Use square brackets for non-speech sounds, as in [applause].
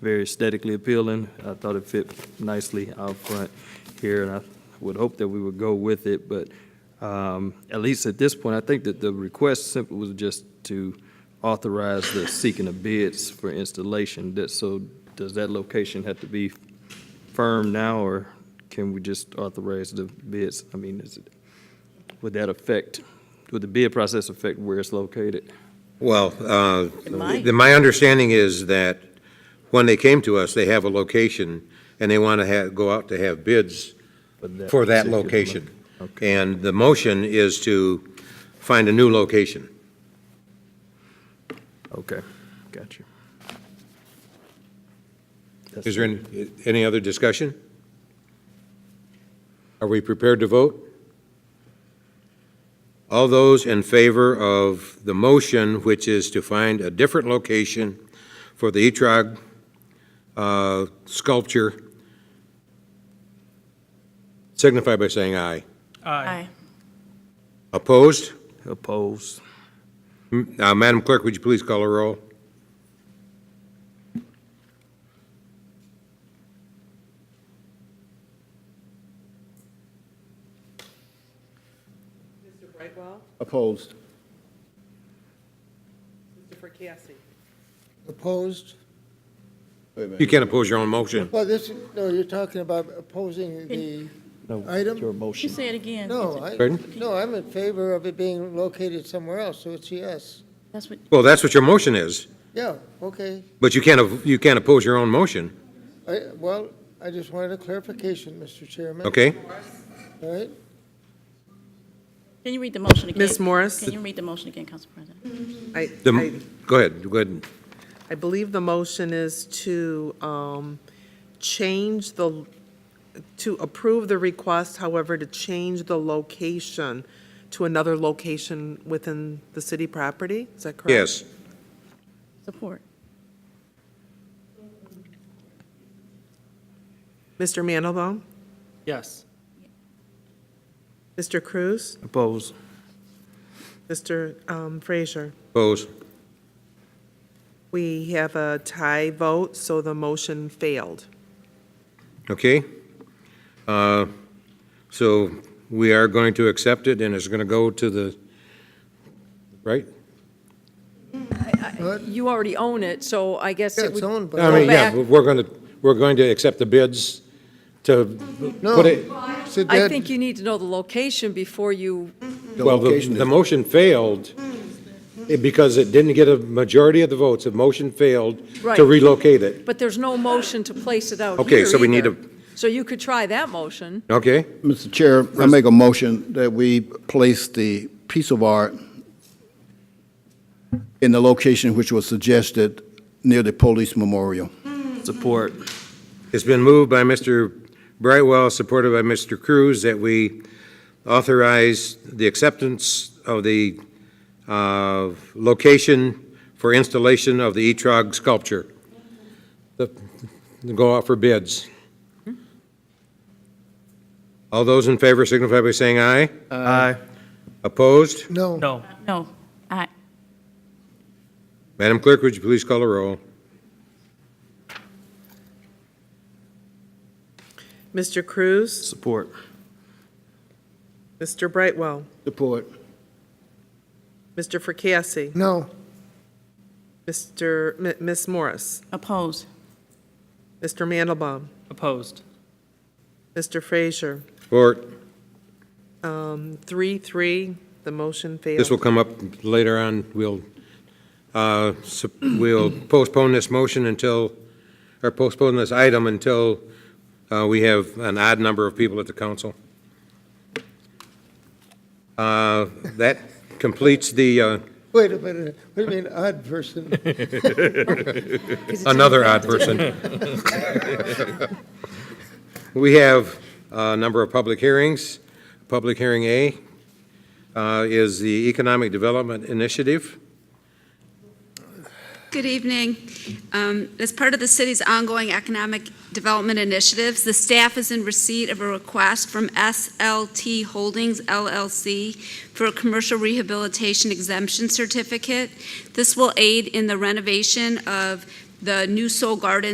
very aesthetically appealing. I thought it fit nicely out front here, and I would hope that we would go with it, but um, at least at this point, I think that the request simply was just to authorize the seeking of bids for installation. That, so does that location have to be firm now, or can we just authorize the bids? I mean, is it, would that affect, would the bid process affect where it's located? Well, uh, might. the- my understanding is that when they came to us, they have a location, and they want to have, go out to have bids for that particular location. lo- Okay. And the motion is to find a new location. Okay, got you. That's- Is there any, any other discussion? Are we prepared to vote? All those in favor of the motion, which is to find a different location for the Etrog uh, sculpture, signify by saying aye. Aye. Opposed? Opposed? M- uh, Madam Clerk, would you please call a roll? Mr. Brightwell? Opposed. Mr. Fracassi? Opposed? Wait a minute. You can't oppose your own motion. Well, this, no, you're talking about opposing the item? Your You motion. say it again. No, I, Pardon? no, I'm in favor of it being located somewhere else, so it's yes. That's what, Well, that's what your motion is, Yeah, okay. but you can't, you can't oppose your own motion, I, well, I just wanted a clarification, Mr. Chairman. okay? All right? can you read the motion again? Ms. Morris? Can you read the motion again, Council President? I, The- I- Go ahead, go ahead. I believe the motion is to um, change the, to approve the request, however, to change the location to another location within the city property? Is that correct? Yes. Support. Mr. Mandelbaum? Yes. Mr. Cruz? Opposed? Mr. um, Frazier? Opposed? We have a tie vote, so the motion failed. Okay. Uh, So we are going to accept it, and it's going to go to the, right? You already own it, so I guess Yeah, it it's would. owned by. I mean, yeah, back. we're going to, we're going to accept the bids to No. put it, It's a I dead- think you need to know the location before you, well, the, location is- the motion failed eh, because it didn't get a majority of the votes. The motion failed Right. to relocate it. but there's no motion to place it out Okay, here so we need either. So you could try that motion. Okay? Mr. Chair, I make a motion that we place the piece of art in the location which was suggested near the police memorial. Support. It's been moved by Mr. Brightwell, supported by Mr. Cruz, that we authorize the acceptance of the uh, location for installation of the Etrog sculpture. The- Go out for bids. All those in favor signify by saying aye. Aye. Opposed? No. No, aye. Madam Clerk, would you please call a roll? Mr. Cruz? Support. Mr. Brightwell? Support. Mr. Fracassi? No. Mr., M- Ms. Morris? Oppose. Mr. Mandelbaum? Opposed. Mr. Frazier? Or, Three, three, the motion this will failed. come up later on, we'll, uh, sup- we'll postpone this motion until, or postpone this item until uh, we have an odd number of people at the council. Uh, That completes the, uh, Wait a minute. What do you mean, odd person? [laughs] another odd person. [laughs] We have a number of public hearings. Public hearing A uh, is the Economic Development Initiative. Good evening. Um, As part of the city's ongoing economic development initiatives, the staff is in receipt of a request from SLT Holdings LLC for a commercial rehabilitation exemption certificate. This will aid in the renovation of the new Soul Garden